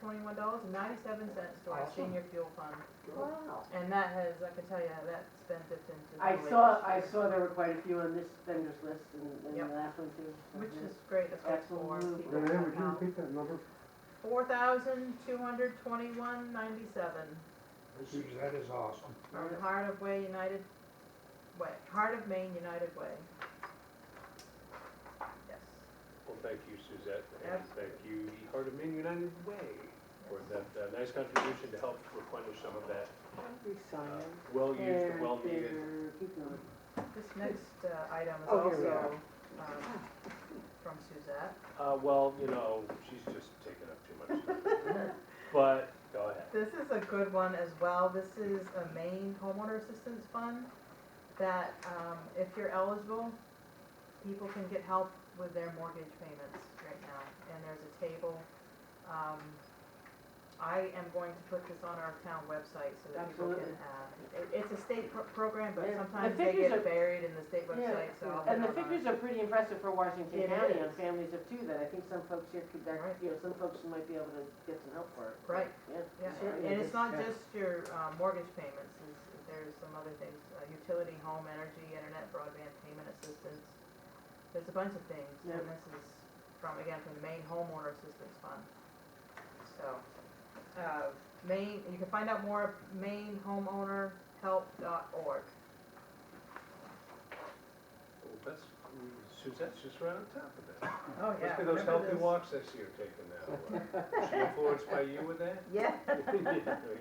twenty-one dollars and ninety-seven cents to our Awesome. senior fuel fund. Wow. And that has, I can tell you, that's been dipped into. the I lake saw, this I year, saw there were quite a few on this vendor's list and, Yep. and the last one too. so Which yeah. is great, that's good Excellent for move. people. Renee, would you Wow. repeat that number? Four thousand, two hundred, twenty-one, ninety-seven. That is awesome. From Heart of Way United Way, Heart of Maine United Way. Yes. Well, thank you, Suzette, and Yes. thank you, the Heart of Maine United Way, for that uh, nice contribution to help replenish some of that We saw uh, them. well-used There, and well-needed. there, keep going. This next uh, item is Oh, here we also um, from Suzette. Uh, well, you know, she's just taking up too much time. But, go ahead. This is a good one as well. This is a Maine homeowner assistance fund that um, if you're eligible, people can get help with their mortgage payments right now. And there's a table. Um, I am going to put this on our town website so that people can Absolutely. have. it- It's a state pro- program, but Yeah. The sometimes they figures get are- buried in the state Yeah, website, so. I'll And put it on our- the figures are pretty impressive for Washington It County on is. families of two, that I think some folks here could, that- Right. you know, some folks might be able to get some help for it. Right. Yeah. Yeah, certainly and it's is. not Yeah. just your uh, mortgage payments, it's, there's some other things, uh, utility, home, energy, internet, broadband, payment assistance. There's a bunch of things, Yeah. and this is from, again, from the Maine Homeowner Assistance Fund. So, uh, Maine, you can find out more at mainehomeownerhelp.org. Well, that's, Suzette's just right on top of that. Oh, Must be those healthy walks this year taking now. Was she influenced by you with that? Yeah. There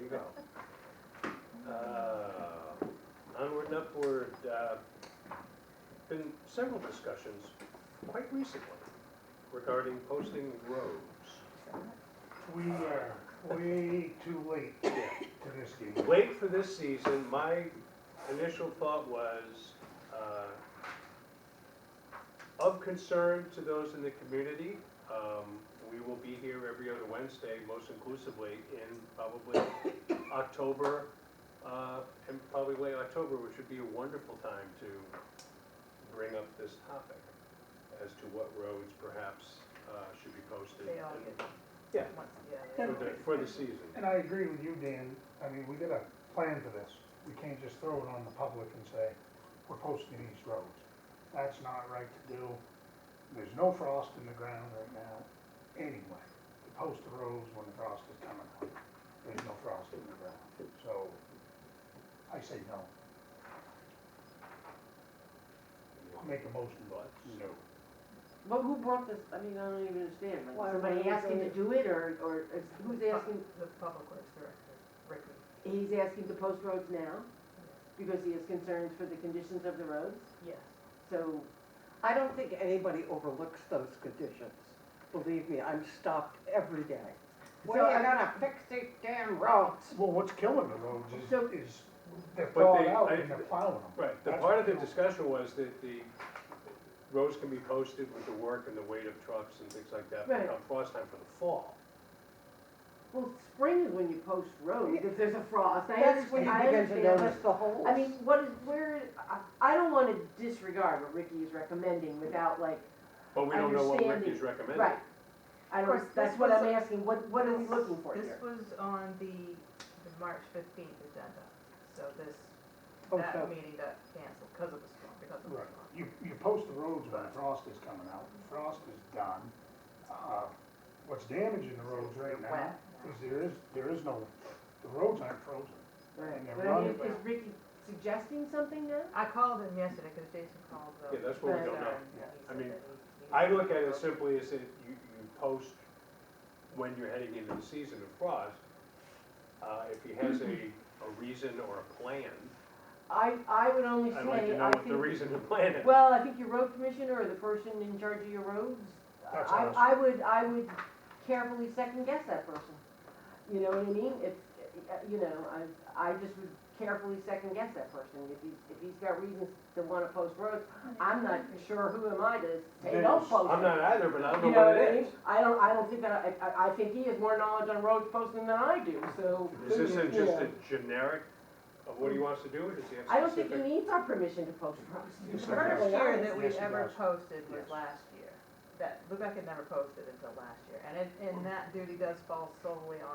you go. Uh, Onward and upward, uh, been several discussions quite recently regarding posting roads. We are way too late to this game. Late for this season, my initial thought was, uh, of concern to those in the community, um, we will be here every other Wednesday, most inclusively, in probably October, uh, and probably late October, which would be a wonderful time to bring up this topic as to what roads perhaps, uh, should be posted. They all get. Yeah. Once, yeah. For the, for the season. And I agree with you, Dan. I mean, we gotta plan for this. We can't just throw it on the public and say, we're posting these roads. That's not right to do. There's no frost in the ground right now, anyway. To post the roads when the frost is coming on. There's no frost in the ground, so I say no. Make a motion, but no. But who brought this, I mean, I don't even understand, Why like, would we somebody asking do to it? do it, or, or is- who's asking, The Public Works Director, Ricky. he's asking to post roads now? Because he has concerns for the conditions of the roads, Yes. so, I don't think anybody overlooks those conditions. Believe me, I'm stopped every day. Well, Well, I- I gotta fix these damn roads. Well, what's killing the roads So- is, is they're But they- thawed out I- and they're plowing them. Right, the That's part of the what- discussion was that the roads can be posted with the work and the weight of trucks and things like that, but Right. come frost time for the fall. well, spring is when you post roads, if there's a frost, I That's understand, when you I begin to understand, notice but- the holes. I mean, what is, where, I, I don't wanna disregard what Ricky is recommending without like, But we don't know what Understanding, Ricky's recommending. right. I Of don't, course, that's this what was I'm a- asking, what, what are we looking for here? This was on the, the March fifteenth agenda, so this, Okay. Oh, that meeting got canceled because of the storm, because of the Right, storm. you, you post the roads when the frost is coming out, frost is done. Uh, What's damaging the roads right They're now wet. is there is, there is no, the roads aren't frozen. Right, And they're but I mean, running is back. Ricky suggesting something now? I called him yesterday because Jason called the. Yeah, that's what we don't Right. know. and he Yeah. I said mean, that he- he- I look at it simply as if you, you post when you're heading into the season of frost. Uh, if he has a, a reason or a plan, I, I would only I'd like to say, know I what the think, reason and plan is. well, I think your road commissioner or the person in charge of your roads, That's I, us. I would, I would carefully second guess that person. You know what I mean? If, uh, you know, I, I just would carefully second guess that person. If he's, if he's got reasons to wanna post roads, I'm not sure who am I to say don't Yes. post it. I'm not either, but I You know don't know what I what it mean? I don't, I don't think that, I- I, I think he has more knowledge on road posting than I do, so. is. Is this a- just Yeah. a generic of what he wants to do, or does he have specific? I don't think he needs our permission to post roads. The First year that we Yes, he ever does. posted was Yes. last year. that Lubec had never posted until last year. And it, and that duty does fall solely on